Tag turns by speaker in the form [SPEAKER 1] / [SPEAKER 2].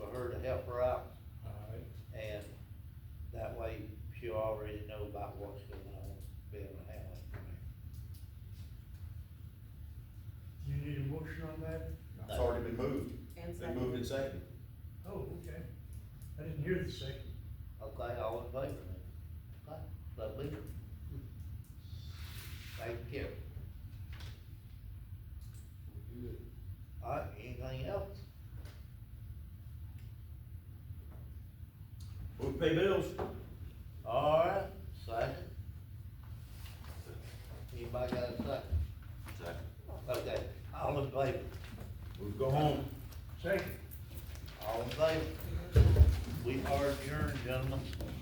[SPEAKER 1] up right,
[SPEAKER 2] Alright,
[SPEAKER 1] and that way she'll already know about what's going on, be able to handle it.
[SPEAKER 2] you need a motion on that?
[SPEAKER 3] It's already been moved.
[SPEAKER 4] And
[SPEAKER 3] They moved it second.
[SPEAKER 2] Oh, okay. I didn't hear the second.
[SPEAKER 1] Okay, all in favor then? Okay, lovely. Thank you. Alright, anything else?
[SPEAKER 3] Move to pay bills.
[SPEAKER 1] Alright, second. Anybody got a second?
[SPEAKER 3] Second.
[SPEAKER 1] Okay, all in favor?
[SPEAKER 3] Move go home.
[SPEAKER 2] Second.
[SPEAKER 1] All in favor? We are adjourned, gentlemen.